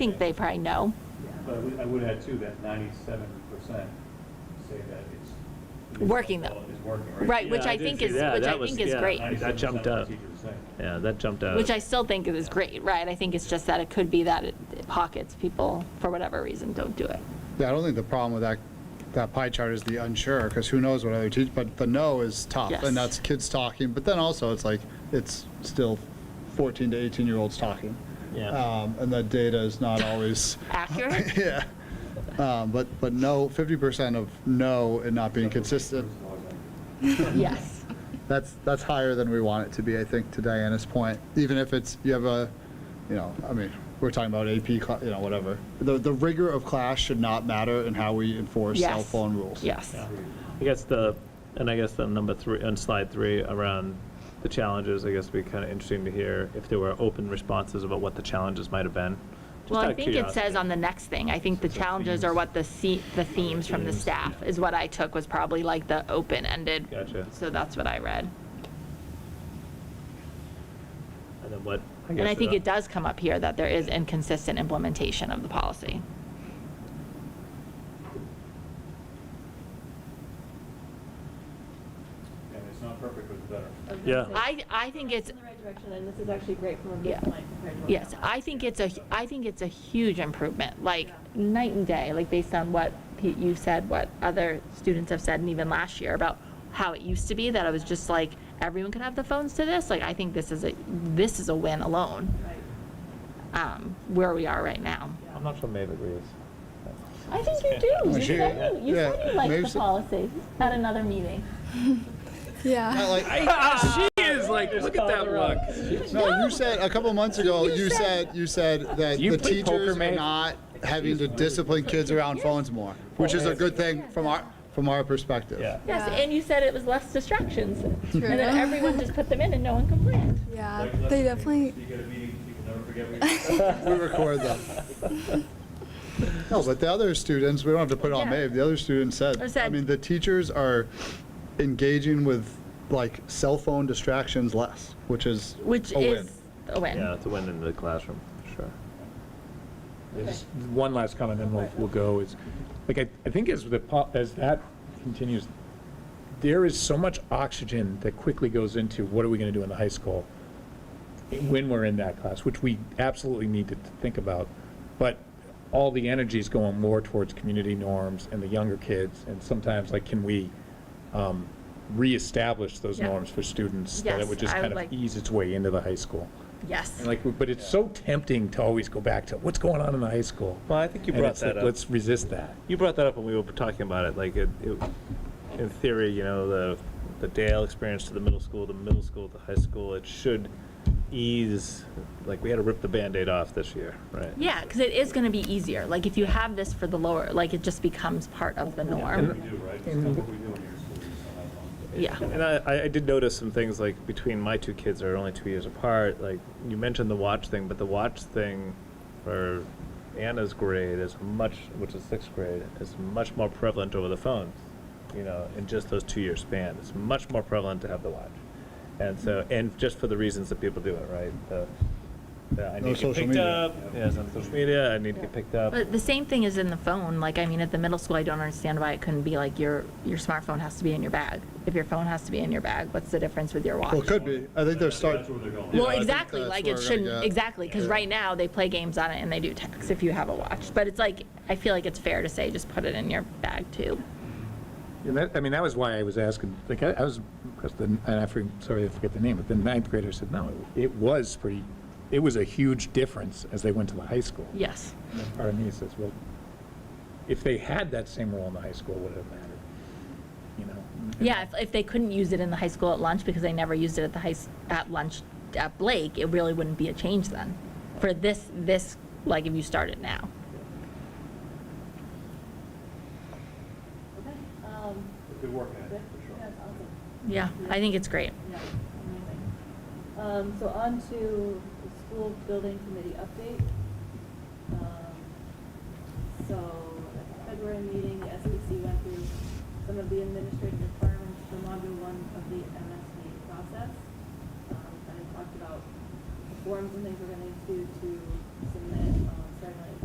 think they probably know. But I would, I would add too, that ninety-seven percent say that it's. Working though. It's working, right? Right, which Yeah, I did think see is, that. which That I was- think is yeah, great. That jumped 97% of up. teachers say. Yeah, that jumped out. Which I still think is great, right? I think it's just that it could be that it it pockets people, for whatever reason, don't do it. Yeah, I don't think the problem with that, that pie chart is the unsure, because who knows what other teach, but the no is tough, Yes. and that's kids talking, but then also it's like, it's still 14 to 18-year-olds talking. Yeah. Um, And that data is not always, Accurate? yeah. Um, But, but no, 50% of no and not being consistent, Yes. that's, that's higher than we want it to be, I think, to Diana's point. Even if it's, you have a, you know, I mean, we're talking about AP, cla- you know, whatever. The, the rigor of class should not matter in how we enforce cell Yes. phone rules. Yes. I guess the, and I guess the number three, on slide three, around the challenges, I guess it'd be kind of interesting to hear if there were open responses about what the challenges might have been. Just Well, out I of think it says curiosity. on the next thing, I think the challenges are what the se, the themes from the staff is what I took was probably like the open-ended. Gotcha. So that's what I read. And then what? And guess uh, I think the- it does come up here that there is inconsistent implementation of the policy. And it's not perfect, but it's better. I was gonna Yeah. say, I, I think it's, In the right direction, and this is actually great from a Yeah. good point compared to. what Yes, Uh, happened. I think it's a, I think it's a huge improvement, like night and day, like based on what Pete, you said, what other students have said, and even last year about how it used to be, that it was just like, everyone could have the phones to this, like, I think this is a, this is a win alone, Right. um, where we are right now. I'm not sure Maeve agrees. I think you do. Well, You she- said you, you, yeah, said you liked maybe the so- policy at another meeting. Not Yeah. like- She is like, look at that look. No, you said, a couple months ago, you said, you said that You the play poker, teachers are man? not having to discipline kids around phones more, which is a good thing from our, from our perspective. Yeah. Yes, Yeah. and you said it was less distractions. True. And then everyone just put them in and no one complained. Yeah, Like, let's Uh, they say definitely. You get a meeting, you can never forget what you said. We record them. No, but the other students, we don't have to put it on Yeah. Maeve, the other students I said, I said- mean, the teachers are engaging with like cell phone distractions less, which is Which a win. is a Yeah, win. it's a win in the classroom, for sure. Just One last comment, then we'll, we'll go, is, like, I, I think as the, po- as that continues, there is so much oxygen that quickly goes into what are we gonna do in the high school when we're in that class, which we absolutely need to think about. But all the energy is going more towards community norms and the younger kids, and sometimes, like, can we, um, reestablish those Yeah. norms for students? That Yes, it would just I kind would of like- ease its way into the high school. Yes. And Like, but it's so tempting to always go back to what's going on in the high school. Well, I think you And brought it's like, that up. Let's resist that. You brought that up when we were talking about it, like, it, it, in theory, you know, the, the Dale experience to the middle school, the middle school to high school, it should ease, like, we had to rip the Band-Aid off this year, right? Yeah, because it is going to be easier. Like, if you have this for the lower, like, it just becomes part of the What we norm. do, right? It's not what we do in your school. it's not how long. Yeah. And I- I, I did notice some things, like, between my two kids are only two years apart, like, you mentioned the watch thing, but the watch thing for Anna's grade is much, which is sixth grade, is much more prevalent over the phone, you know, in just those two-year span. It's much more prevalent to have the watch. And so, and just for the reasons that people do it, right? The, the, I No need to get social picked media. up, yes, on social media, I need to get picked uh, up. But the same thing is in the phone. Like, I mean, at the middle school, I don't understand why it couldn't be like your, your smartphone has to be in your bag. If your phone has to be in your bag, what's the difference with your watch? Well, it could be. I think they're That's starting, where they're going. Well, I think exactly, that's like where it we're gonna shouldn't, get. exactly, because right now they play games on it and they do text if you have a watch. But it's like, I feel like it's fair to say, just put it in your bag too. And that, I mean, that was why I was asking, like, I I was, impressed, and I, for- sorry, I forget the name, but the ninth grader said, no, it was pretty, it was a huge difference as they went to the high school. Yes. And Part of me says, well, if they had that same role in the high school, would it have mattered? You know? And- Yeah, if, if they couldn't use it in the high school at lunch because they never used it at the high, s- at lunch at Blake, it really wouldn't be a change then. For this, this, like if you start it now. Okay, um, Good work, Anna, good. for sure. That's awesome. Yeah, I think it's great. Yeah, amazing. Um, so on to the school building committee update. Um, So at the February meeting, the SBC went through some of the administrative requirements for module one of the MSD process. Um, And I talked about the forms and things we're gonna need to, to submit, um, starting on